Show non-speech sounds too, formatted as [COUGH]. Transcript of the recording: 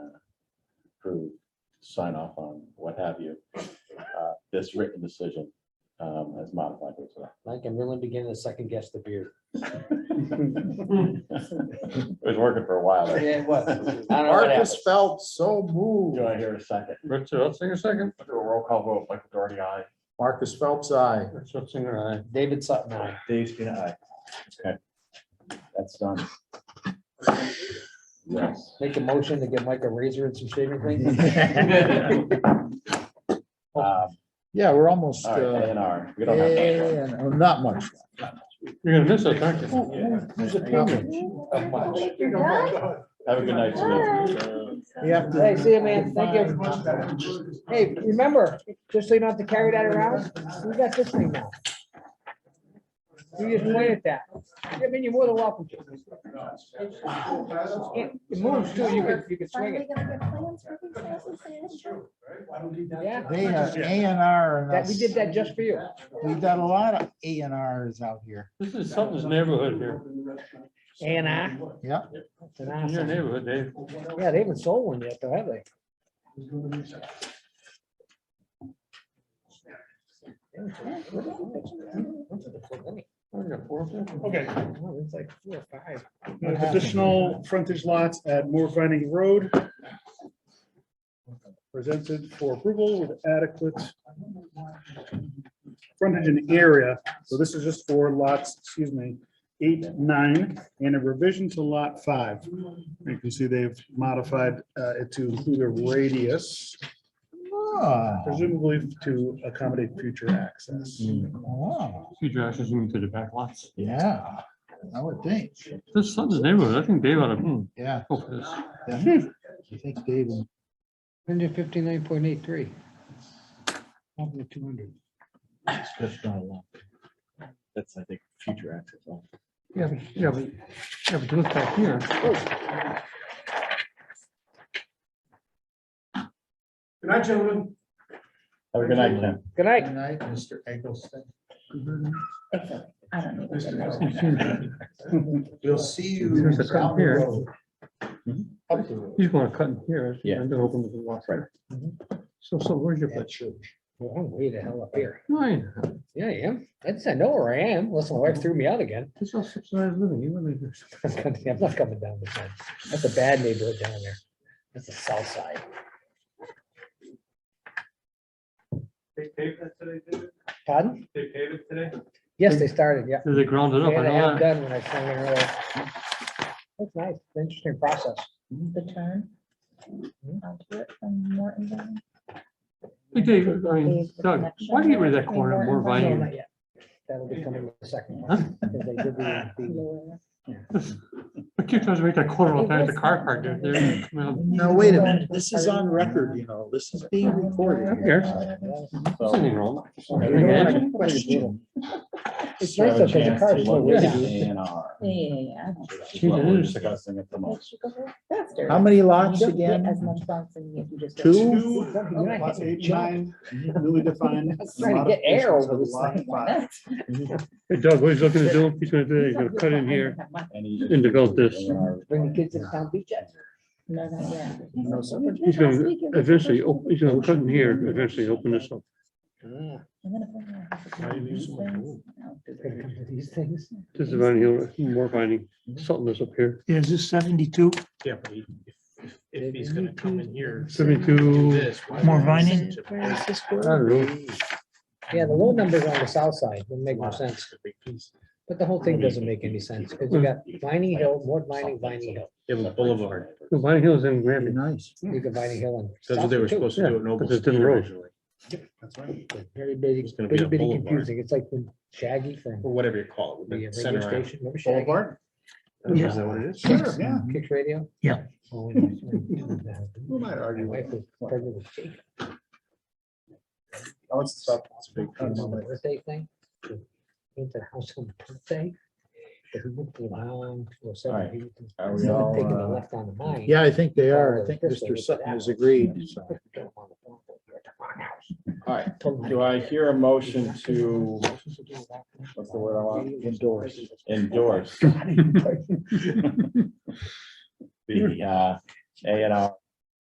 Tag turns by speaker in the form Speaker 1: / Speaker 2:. Speaker 1: approve, sign off on, what have you. uh, This written decision um, as modified. as [LAUGHS] well.
Speaker 2: Like I'm really beginning to second guess the beer.
Speaker 1: It was working for a while. there.
Speaker 2: Yeah,
Speaker 1: [LAUGHS]
Speaker 2: it was. I don't know what
Speaker 3: Marcus
Speaker 2: happened.
Speaker 3: felt so moved.
Speaker 1: Do I hear a second?
Speaker 4: Richard Ottinger, second.
Speaker 1: Do a roll call vote, Michael Doherty, aye.
Speaker 3: Marcus Phelps, I.
Speaker 4: Richard Ottinger, aye.
Speaker 2: David Sutton, aye.
Speaker 1: Dave Spina, aye. Okay. That's done.
Speaker 4: [LAUGHS]
Speaker 1: Yes.
Speaker 2: Make a motion to get Mike a razor and some shaving
Speaker 5: [LAUGHS]
Speaker 2: cream.
Speaker 1: Um,
Speaker 3: Yeah, we're almost.
Speaker 1: All right,
Speaker 3: uh,
Speaker 1: A and R. We don't have that. one.
Speaker 3: and- oh, Not much. Oh,
Speaker 4: You're gonna miss it, aren't you?
Speaker 3: Whose opinion?
Speaker 1: Have a good night. Sue.
Speaker 3: We have to.
Speaker 5: Hey, see you, man. Thank you. Hey, remember, just so you don't have to carry that around, we got this thing now. You just point at that. I mean, you're more than welcome to. It it moves too. You could, you could swing
Speaker 6: Finally
Speaker 5: it.
Speaker 6: gonna get plans for these houses they had built?
Speaker 5: Yeah.
Speaker 3: They have A and R and
Speaker 5: That, we
Speaker 3: us.
Speaker 5: did that just for you.
Speaker 3: We've got a lot of A and Rs out here.
Speaker 4: This is something's neighborhood here.
Speaker 5: A and R.
Speaker 3: Yeah.
Speaker 5: It's an
Speaker 4: In your
Speaker 5: asshole.
Speaker 4: neighborhood, Dave.
Speaker 5: Yeah, they haven't sold one yet, though, have they?
Speaker 4: What do you got, four of them?
Speaker 7: Okay,
Speaker 5: Oh, It's like four or five.
Speaker 4: Uh,
Speaker 3: What happened?
Speaker 7: additional frontage lots at Moore Vining Road. Presented for approval with adequate frontage and area. So this is just for lots, excuse me, eight, nine, and a revision to lot five. You can see they've modified uh, it to include a radius,
Speaker 3: Ah,
Speaker 7: presumably to accommodate future access.
Speaker 3: wow,
Speaker 4: Huge ashes into the back lots.
Speaker 3: Yeah, I would think.
Speaker 4: This son's neighborhood, I think Dave ought to, hmm,
Speaker 3: Yeah.
Speaker 4: go for this. Hmm.
Speaker 3: definitely. I think Dave and
Speaker 5: Hundred fifty-nine point eight three. Up to two hundred.
Speaker 3: Chris got along.
Speaker 1: That's, I think, future access.
Speaker 4: Yeah, but, yeah, but, yeah, but look back here.
Speaker 7: Good night, gentlemen.
Speaker 1: Have a good night, Ken.
Speaker 5: Good night.
Speaker 3: Good night, Mr. Eggleston.
Speaker 6: I don't know.
Speaker 3: We'll see you.
Speaker 4: There's a
Speaker 3: down
Speaker 4: cut
Speaker 3: the
Speaker 4: here.
Speaker 3: road. Up the road.
Speaker 4: Hmm? He's gonna cut in here.
Speaker 1: Yeah.
Speaker 4: And then open the walk.
Speaker 1: Right.
Speaker 4: So, so where's your
Speaker 3: At
Speaker 4: place?
Speaker 3: church.
Speaker 5: Well, I'm way the hell up here.
Speaker 4: Nine.
Speaker 5: Yeah, I am. I just, I know where I am. Unless my wife threw me out again. [LAUGHS]
Speaker 4: This is all subsidized living. You really.
Speaker 5: I'm not coming down this side. That's a bad neighborhood down there. That's the south side. They paved it today, Pardon? They paved it today? Yes, they started, yeah.
Speaker 4: Did they ground it up?
Speaker 5: They
Speaker 4: I
Speaker 5: had a
Speaker 4: know
Speaker 5: half
Speaker 4: that.
Speaker 5: done when I came in earlier. That's nice. It's an Interesting process.
Speaker 6: The turn. onto it from Mortonville.
Speaker 4: Hey, Dave, I mean, Doug, why do you get rid of that corner more
Speaker 6: Right.
Speaker 5: No,
Speaker 4: violent?
Speaker 5: not yet. That'll be coming in the second
Speaker 4: [LAUGHS]
Speaker 5: one. because they did the- the-
Speaker 4: I keep trying to make that corner all the time at the car park. there. They're coming out.
Speaker 3: Now, wait a minute, this is on record, you know, this is being recorded.
Speaker 4: Who cares? There's
Speaker 1: So.
Speaker 4: Nothing wrong.
Speaker 5: You don't wanna-
Speaker 4: Imagine.
Speaker 3: Question.
Speaker 1: have a
Speaker 5: It's nice though, 'cause the
Speaker 1: chance
Speaker 5: car's
Speaker 1: to
Speaker 5: slow
Speaker 1: look at
Speaker 5: down.
Speaker 1: the A&R,
Speaker 6: Yeah, yeah, yeah.
Speaker 1: which is
Speaker 4: She
Speaker 1: what we're
Speaker 4: did.
Speaker 1: discussing at the
Speaker 6: I-
Speaker 1: moment.
Speaker 6: Should go faster.
Speaker 3: How many
Speaker 6: You
Speaker 3: lots
Speaker 6: don't get As
Speaker 3: again?
Speaker 6: much bouncing if you just. go-
Speaker 3: Two?
Speaker 7: Lots eight, nine, newly defined.
Speaker 5: [LAUGHS] I was trying to get air over this
Speaker 7: Lot
Speaker 5: thing.
Speaker 7: five.
Speaker 5: [LAUGHS]
Speaker 4: Hey, Doug, what he's looking to do, he's gonna do, he's gonna cut in here.
Speaker 1: Any-
Speaker 4: And develop this.
Speaker 1: A&R.
Speaker 5: Bring the kids to the town beach. at.
Speaker 6: No, not yet.
Speaker 3: No, somebody-
Speaker 4: He's gonna eventually, op- he's gonna cut in here, eventually open this up.
Speaker 6: And then if I have to do these things, I'll do
Speaker 5: It's gonna
Speaker 6: it.
Speaker 5: come to These things.
Speaker 4: This is Vine Hill, more finding, something is up here.
Speaker 8: Is this seventy-two?
Speaker 9: Yeah, but he- if, if he's gonna come in here. do
Speaker 4: Seventy-two,
Speaker 9: this, why
Speaker 8: More
Speaker 9: would he
Speaker 8: vining?
Speaker 9: listen to
Speaker 6: Where is this
Speaker 4: I
Speaker 6: going?
Speaker 4: don't know,
Speaker 5: Yeah, the low numbers on the south side would make more sense,
Speaker 9: the big piece?
Speaker 5: but the whole thing doesn't make any sense because you got
Speaker 1: Hmm.
Speaker 5: Vining Hill, more Vining, Vining Hill.
Speaker 9: Yeah, but Boulevard,
Speaker 4: Vine Hill's in
Speaker 3: Very
Speaker 4: Grammy.
Speaker 3: Nice.
Speaker 5: You got Vining Hill and.
Speaker 9: that's what they were supposed to do in
Speaker 4: but it's different
Speaker 9: Noblesville
Speaker 4: road.
Speaker 9: originally,
Speaker 7: That's right.
Speaker 5: to. Very big,
Speaker 9: It's gonna be
Speaker 5: very
Speaker 9: a
Speaker 5: big
Speaker 9: boulevard.
Speaker 5: confusing. It's like when Shaggy from
Speaker 9: or whatever you call it.
Speaker 5: the uh,
Speaker 9: the
Speaker 5: radio
Speaker 9: center aisle.
Speaker 5: station, remember Shaggy?
Speaker 7: Boulevard?
Speaker 8: Yeah.
Speaker 9: Is that what it is?
Speaker 7: Sure, yeah.
Speaker 3: Mm-hmm.
Speaker 5: Kicks radio?
Speaker 8: Yeah.
Speaker 5: Oh, when I was doing that,
Speaker 7: Who am I
Speaker 5: My
Speaker 7: arguing with?
Speaker 5: wife was pregnant with Jake.
Speaker 7: Oh, it's tough. It's a big
Speaker 5: kind of
Speaker 7: piece.
Speaker 5: on Oh, my birthday thing. Into the house on my birthday. If we looked around, or
Speaker 1: All right.
Speaker 5: seven.
Speaker 1: Are we all,
Speaker 5: Taking the
Speaker 1: uh,
Speaker 5: left on the mine.
Speaker 3: Yeah, I think they are. I think Mr. Sutton has agreed. so.
Speaker 1: All right, do I hear a motion to what's the word I want?
Speaker 3: Endorse.
Speaker 1: endorse? The uh, A and R